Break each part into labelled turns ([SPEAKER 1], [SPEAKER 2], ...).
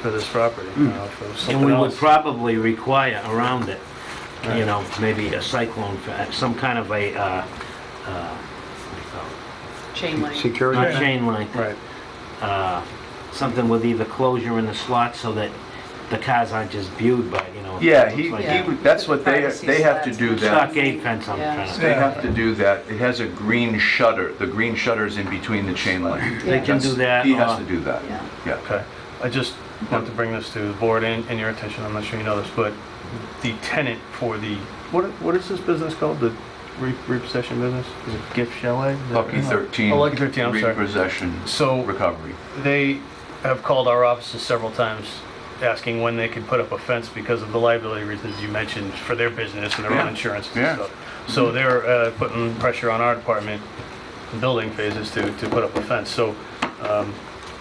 [SPEAKER 1] for this property, you know, for
[SPEAKER 2] Hmm. And
[SPEAKER 1] something
[SPEAKER 2] we would
[SPEAKER 1] else.
[SPEAKER 2] probably require around it, you
[SPEAKER 1] Right.
[SPEAKER 2] know, maybe a cyclone, fa- some kind of a, uh, uh,
[SPEAKER 3] chain link.
[SPEAKER 2] not
[SPEAKER 1] Yeah.
[SPEAKER 4] Security,
[SPEAKER 2] chain link,
[SPEAKER 1] Right,
[SPEAKER 2] uh, something with either closure in the slot so that the cars aren't just viewed by, you know.
[SPEAKER 4] yeah,
[SPEAKER 2] it
[SPEAKER 4] he, he,
[SPEAKER 2] looks like
[SPEAKER 3] Yeah.
[SPEAKER 4] would- that's what they, they have to do that.
[SPEAKER 2] Stockade fence I'm
[SPEAKER 3] Yeah.
[SPEAKER 2] trying to,
[SPEAKER 4] They have to do that. It has a green shutter. The green shutter's in between the chain link.
[SPEAKER 2] they can do
[SPEAKER 4] That's-
[SPEAKER 2] that.
[SPEAKER 4] He
[SPEAKER 2] or-
[SPEAKER 4] has to do that,
[SPEAKER 3] Yeah.
[SPEAKER 4] yeah.
[SPEAKER 1] okay. I just want to bring this to the board and and your attention, I'm not sure you know this, but the tenant for the, what, what is this business called? The re- repossession business? Is it gift chalet? Is that-
[SPEAKER 4] Lucky 13.
[SPEAKER 1] Oh, Lucky 13, I'm sorry.
[SPEAKER 4] Repossession,
[SPEAKER 1] So
[SPEAKER 4] recovery.
[SPEAKER 1] they have called our offices several times asking when they could put up a fence because of the liability reasons you mentioned for their business and their own
[SPEAKER 4] Yeah.
[SPEAKER 1] insurance
[SPEAKER 4] Yeah.
[SPEAKER 1] and stuff. So they're uh, putting pressure on our department, building phases to, to put up a fence. So, um,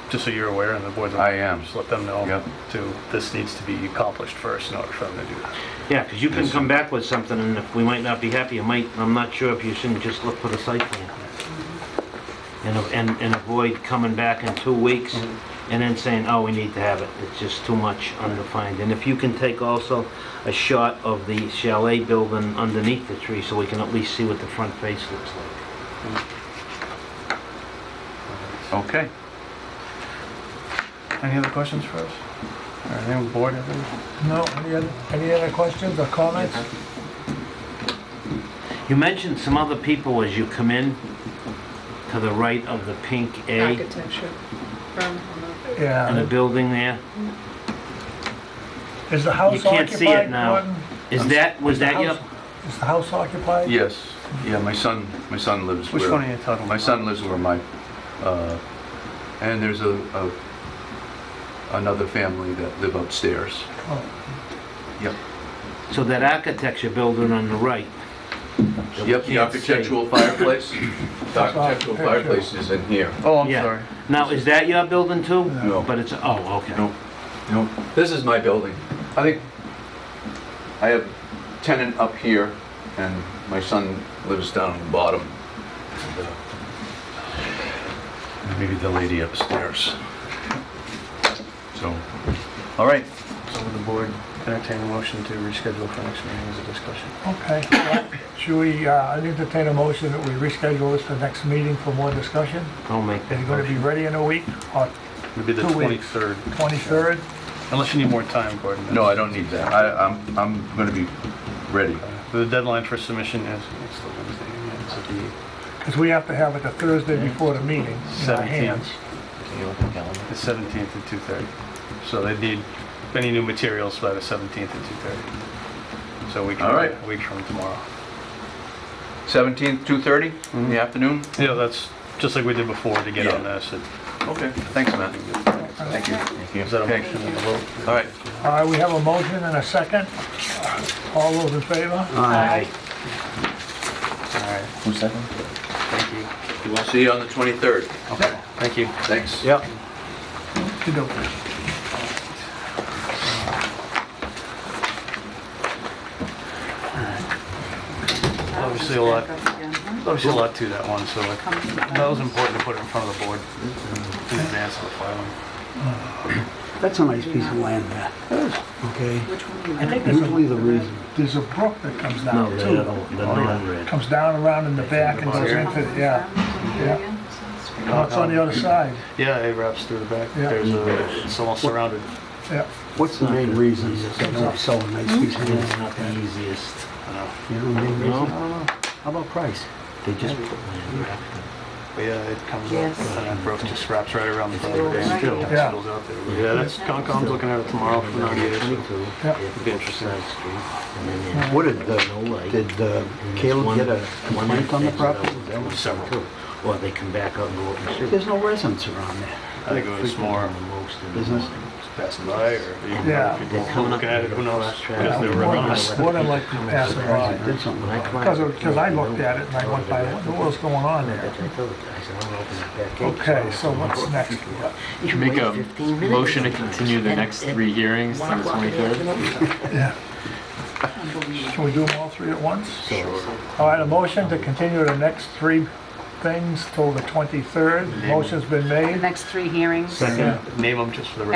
[SPEAKER 1] just so you're aware and the board.
[SPEAKER 4] I am.
[SPEAKER 1] Just let them know
[SPEAKER 4] Yep.
[SPEAKER 1] to, this needs to be accomplished first in order for them to do that.
[SPEAKER 2] Yeah, because you can come back with something and if we might not be happy, you might, I'm not sure if you shouldn't just look for the site plan. And, a- and, and avoid coming back in two weeks and then saying, oh, we need to have it. It's just too much undefined. And if you can take also a shot of the chalet building underneath the tree so we can at least see what the front face looks like.
[SPEAKER 4] Okay.
[SPEAKER 1] Any other questions for us? All right, anyone board have any?
[SPEAKER 5] No, any other, any other questions or comments?
[SPEAKER 2] You mentioned some other people as you come in to the right of the pink A
[SPEAKER 3] Architecture firm.
[SPEAKER 2] in the
[SPEAKER 5] Yeah,
[SPEAKER 2] building there.
[SPEAKER 5] is the house
[SPEAKER 2] You can't see it
[SPEAKER 5] occupied,
[SPEAKER 2] now.
[SPEAKER 5] Gordon?
[SPEAKER 2] Is that, was that your?
[SPEAKER 5] House- Is the house occupied?
[SPEAKER 4] Yes, yeah, my son, my son lives where...
[SPEAKER 1] Which one are you talking about?
[SPEAKER 4] My son lives where my, uh, and there's a, a, another family that live upstairs.
[SPEAKER 5] Oh,
[SPEAKER 4] Yep.
[SPEAKER 2] So that architecture building on the right. that we
[SPEAKER 6] Yep, the
[SPEAKER 2] can't
[SPEAKER 6] architectural fireplace. The architectural
[SPEAKER 5] Picture.
[SPEAKER 6] fireplace is in here.
[SPEAKER 1] Oh, I'm
[SPEAKER 2] Yeah.
[SPEAKER 1] sorry.
[SPEAKER 2] see. Now, is that your building too?
[SPEAKER 6] No.
[SPEAKER 2] But it's, oh, okay.
[SPEAKER 4] No. No,
[SPEAKER 6] This is my building.
[SPEAKER 4] I think, I have tenant up here, and my son lives down on the bottom. And, uh, Maybe the lady upstairs. So, all right,
[SPEAKER 1] So would the board entertain a motion to reschedule for next meeting as a discussion?
[SPEAKER 5] Okay, Well, should we, uh, I entertain a motion that we reschedule this for next meeting for more discussion?
[SPEAKER 2] I'll make
[SPEAKER 5] Is
[SPEAKER 2] that
[SPEAKER 5] it gonna be
[SPEAKER 2] motion.
[SPEAKER 5] ready in a week, or
[SPEAKER 1] It'd be the
[SPEAKER 5] Two weeks.
[SPEAKER 1] 23rd.
[SPEAKER 5] 23rd?
[SPEAKER 1] Unless you need more time, Gordon.
[SPEAKER 4] no, I don't need that, I, I'm, I'm gonna be ready.
[SPEAKER 1] The deadline for submission is, it's the Wednesday, yeah, it's at
[SPEAKER 5] Because we have to have it the Thursday before the meeting in
[SPEAKER 1] 17th.
[SPEAKER 5] our hands.
[SPEAKER 1] the 17th at 2:30. So they need any new materials by the 17th at 2:30. So we can,
[SPEAKER 4] All right.
[SPEAKER 1] a week from tomorrow.
[SPEAKER 4] Seventeenth, two-thirty in the afternoon?
[SPEAKER 1] Yeah, that's just like we did before to get on
[SPEAKER 4] Yeah.
[SPEAKER 1] this. It-
[SPEAKER 4] Okay. Thanks, Matt. Thank you.
[SPEAKER 1] Is that a
[SPEAKER 4] Okay.
[SPEAKER 1] motion and a vote?
[SPEAKER 4] All right.
[SPEAKER 5] All right, we have a motion and a second. All those in favor?
[SPEAKER 2] Aye.
[SPEAKER 1] All right, thank you.
[SPEAKER 4] We'll see you on the 23rd.
[SPEAKER 1] Okay, thank you.
[SPEAKER 4] Thanks.
[SPEAKER 1] Yep.
[SPEAKER 5] Okey-dokey.
[SPEAKER 1] Obviously a lot. Obviously a lot to that one, so like, that was important to put it in front of the board in advance of the filing.
[SPEAKER 7] That's a nice piece of land there. Okay?
[SPEAKER 3] Which one do you
[SPEAKER 5] I
[SPEAKER 3] want?
[SPEAKER 5] think there's
[SPEAKER 7] Usually
[SPEAKER 5] a,
[SPEAKER 7] the reason.
[SPEAKER 5] there's a brook that comes
[SPEAKER 2] No,
[SPEAKER 5] down
[SPEAKER 2] the
[SPEAKER 5] too.
[SPEAKER 2] other one, the non-red.
[SPEAKER 5] Comes down around in the back and goes
[SPEAKER 1] Here?
[SPEAKER 5] into, yeah. Yeah.
[SPEAKER 2] Uh,
[SPEAKER 5] No, it's on the other side,
[SPEAKER 1] Yeah, it wraps through the back.
[SPEAKER 5] Yeah.
[SPEAKER 1] There's a, it's almost surrounded.
[SPEAKER 5] yeah.
[SPEAKER 7] What's the main reason they don't sell a nice piece of
[SPEAKER 2] It's
[SPEAKER 7] land?
[SPEAKER 2] not the easiest.
[SPEAKER 7] You know, the main reason?
[SPEAKER 2] No.
[SPEAKER 7] I don't know. How about price?
[SPEAKER 2] They just put land wrapped
[SPEAKER 1] But yeah, it comes up
[SPEAKER 3] Yes.
[SPEAKER 1] and that brook just wraps right around the
[SPEAKER 3] It's
[SPEAKER 1] property.
[SPEAKER 3] right.
[SPEAKER 1] Still, it
[SPEAKER 5] Yeah.
[SPEAKER 1] spills out there. Yeah, that's, Concom's looking at it tomorrow for 90 days.
[SPEAKER 5] Yeah.
[SPEAKER 2] It'd be interesting.
[SPEAKER 7] What did the, did uh, Caleb get a complaint on the property?
[SPEAKER 2] Several. Or they come back out and go up and shoot.
[SPEAKER 7] There's no residents around there.
[SPEAKER 1] I think it was more
[SPEAKER 2] The most in the
[SPEAKER 7] Business?
[SPEAKER 2] morning.
[SPEAKER 1] passing by or even
[SPEAKER 5] Yeah.
[SPEAKER 1] people looking at it, who knows? Because they were
[SPEAKER 5] What
[SPEAKER 1] running.
[SPEAKER 5] a- What a like to pass
[SPEAKER 7] They
[SPEAKER 5] by.
[SPEAKER 7] Did something
[SPEAKER 2] When I
[SPEAKER 7] about it.
[SPEAKER 2] climbed
[SPEAKER 5] Because,
[SPEAKER 2] up to
[SPEAKER 5] because
[SPEAKER 2] the
[SPEAKER 5] I looked
[SPEAKER 2] building,
[SPEAKER 5] at it and I went by, what the world's going on there?
[SPEAKER 2] That's what I told the guy, I said, I'm gonna open that back gate.
[SPEAKER 5] Okay, so what's next?
[SPEAKER 2] You
[SPEAKER 8] Make
[SPEAKER 2] wait
[SPEAKER 8] a
[SPEAKER 2] 15 minutes
[SPEAKER 8] motion to
[SPEAKER 2] sometimes,
[SPEAKER 8] continue the
[SPEAKER 2] and
[SPEAKER 8] next
[SPEAKER 2] at
[SPEAKER 8] three hearings to
[SPEAKER 2] one
[SPEAKER 8] the
[SPEAKER 2] o'clock in the
[SPEAKER 8] 23rd.
[SPEAKER 2] afternoon.
[SPEAKER 5] Yeah,
[SPEAKER 3] Unbelievable.
[SPEAKER 5] can we do them all three at once?
[SPEAKER 2] So,
[SPEAKER 5] All right, a motion to continue the next three things till the 23rd. Motion's been
[SPEAKER 3] The
[SPEAKER 5] made.
[SPEAKER 3] next three hearings.
[SPEAKER 1] Yeah, Name them just for the